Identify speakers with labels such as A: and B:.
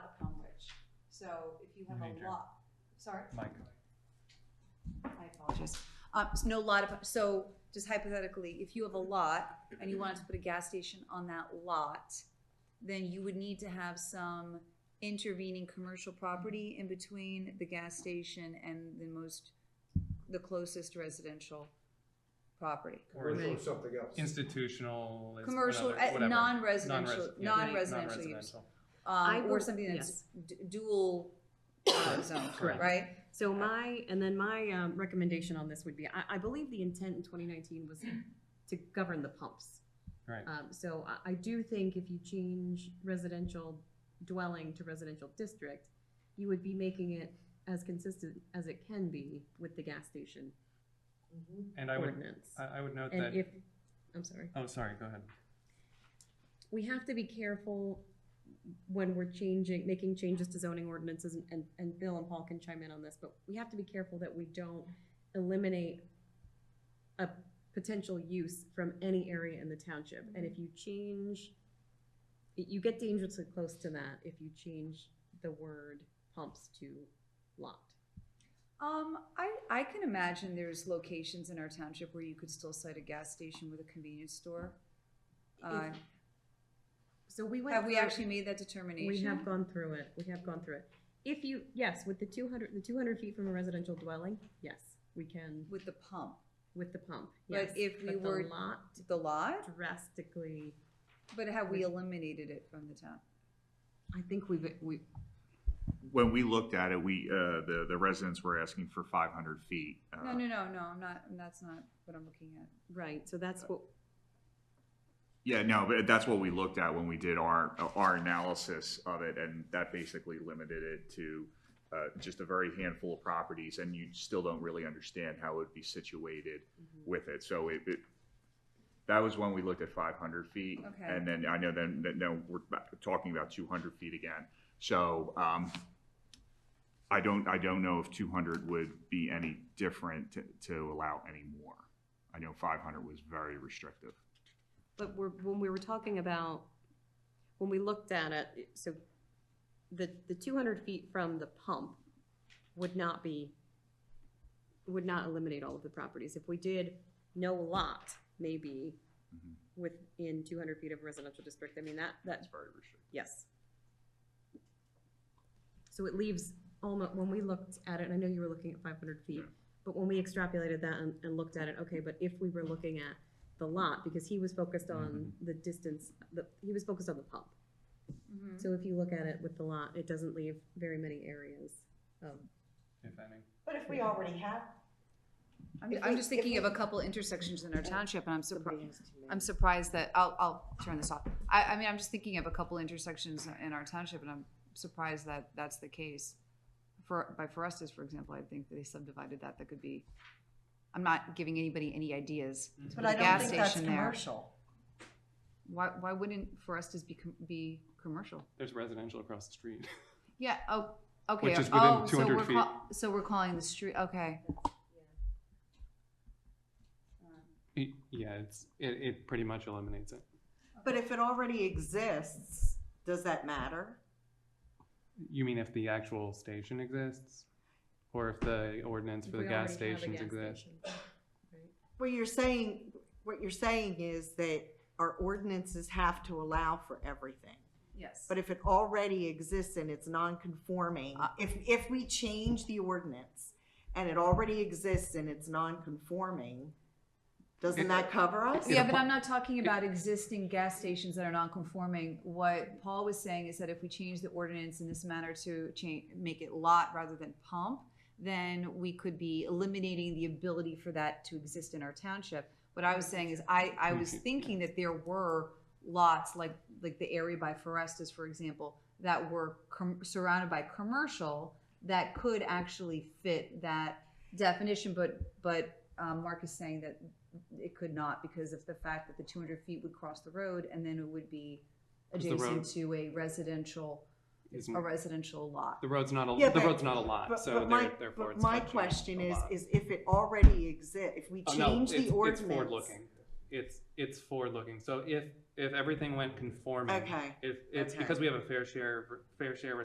A: So if you
B: We
A: have
B: need
A: a
B: your-
A: lot, sorry,
B: Mike,
A: I apologize. Um, s- no lot of, so just hypothetically, if you have a lot and you wanted to put a gas station on that lot, then you would need to have some intervening commercial property in between the gas station and the most, the closest residential property.
B: or
C: Commercial or something else.
B: institutional. is
A: Commercial,
B: another-
A: uh,
B: whatever.
A: non-residential,
B: Non-res- yeah,
A: non-residential use,
B: non-residential.
D: I
A: um, or
D: will-
A: something that's
D: yes.
A: d- dual uh, zone,
B: Correct.
A: right?
D: So my, and then my um, recommendation on this would be, I, I believe the intent in 2019 was to govern the pumps.
B: Right.
D: Um, So I, I do think if you change residential dwelling to residential district, you would be making it as consistent as it can be with the gas station Mm-hmm.
B: And I would,
D: ordinance.
B: I I would note
D: And
B: that,
D: if, I'm sorry.
B: oh, sorry, go ahead.
D: we have to be careful when we're changing, making changes to zoning ordinances, and- and, and Bill and Paul can chime in on this, but we have to be careful that we don't eliminate a potential use from any area in the township. And
A: Mm-hmm.
D: if you change, you get dangerously close to that if you change the word pumps to lot.
A: Um, I, I can imagine there's locations in our township where you could still cite a gas station with a convenience store. Uh,
D: So we went.
A: have we
D: through-
A: actually made that determination?
D: We have gone through it, we have gone through it. If you, yes, with the two hundred, the two hundred feet from a residential dwelling, yes, we can,
A: With the pump,
D: with the pump, yes.
A: But if we
D: But the
A: were-
D: lot
A: the lot,
D: drastically,
A: but have we eliminated it from the town?
D: I think we've, we,
E: When we looked at it, we, uh, the, the residents were asking for five hundred feet. uh,
A: No, no, no, no, I'm not, that's not what I'm looking at.
D: right, so that's what,
E: Yeah, no, but that's what we looked at when we did our, our analysis of it, and that basically limited it to, uh, just a very handful of properties, and you still don't really understand how it would be situated with it, so it, it, that was when we looked at five hundred feet.
A: Okay.
E: And then, I know then, then, now we're back- talking about two hundred feet again, so, um, I don't, I don't know if two hundred would be any different to, to allow any more. I know five hundred was very restrictive.
D: but we're, when we were talking about, when we looked at it, it- so the, the two hundred feet from the pump would not be, would not eliminate all of the properties. If we did no lot, maybe,
E: Mhm.
D: within two hundred feet of a residential district, I mean, that, that,
E: It's very restrictive.
D: yes. So it leaves almost, when we looked at it, and I know you were looking at five hundred feet,
E: Yeah.
D: but when we extrapolated that and, and looked at it, okay, but if we were looking at the lot, because he was focused on
B: Mm-hmm.
D: the distance, the, he was focused on the pump.
A: Mhm.
D: So if you look at it with the lot, it doesn't leave very many areas of
B: If any.
F: But if we already have.
A: I'm,
F: If
A: I'm
F: we-
A: just
F: if
A: thinking of
F: we-
A: a couple intersections in our township and I'm surprised. I'm surprised that, I'll, I'll turn this off. I, I mean, I'm just thinking of a couple intersections in our township, and I'm surprised that that's the case. For, by Forestas, for example, I think they subdivided that, that could be, I'm not giving anybody any ideas.
F: But I
A: The
F: don't
A: gas
F: think that's
A: station there.
F: commercial.
A: Why, why wouldn't Forestas be, com- be commercial?
B: There's residential across the street.
A: Yeah, oh, okay.
B: Which is within
A: oh, so
B: 200
A: we're call- So we're calling the street, okay.
B: Y- Yeah, it's, it, it pretty much eliminates it.
F: But if it already exists, does that matter?
B: You mean if the actual station exists? Or if the ordinance for the gas stations exists?
F: Well, you're saying, what you're saying is that our ordinances have to allow for everything.
A: Yes.
F: But if it already exists and it's non-conforming,
A: Uh,
F: if, if we change the ordinance and it already exists and it's non-conforming, doesn't that cover us?
A: Yeah, but I'm not talking about existing gas stations that are non-conforming. What Paul was saying is that if we change the ordinance in this manner to change, make it lot rather than pump, then we could be eliminating the ability for that to exist in our township. What I was saying is I, I was thinking that there were lots, like, like the area by Forestas, for example, that were com- surrounded by commercial that could actually fit that definition, but, but um, Mark is saying that it could not because of the fact that the two hundred feet would cross the road and then it would be
B: Is the road- Mm.
A: adjacent to a residential,
B: Is-
A: a residential lot.
B: The road's not,
F: Yeah,
B: a. the
F: but-
B: road's not a lot,
F: But,
B: Uh, so
F: but my,
B: there- therefore
F: but
B: it's.
F: my
B: not changed
F: question
B: a
F: is,
B: lot.
F: is if it already exists, if we
B: Oh, no,
F: change
B: it's-
F: the ordinance.
B: It's forward-looking. It's, it's forward-looking. So if, if everything went conforming.
F: Okay,
B: If, it's
F: okay.
B: because we have a fair share, fair share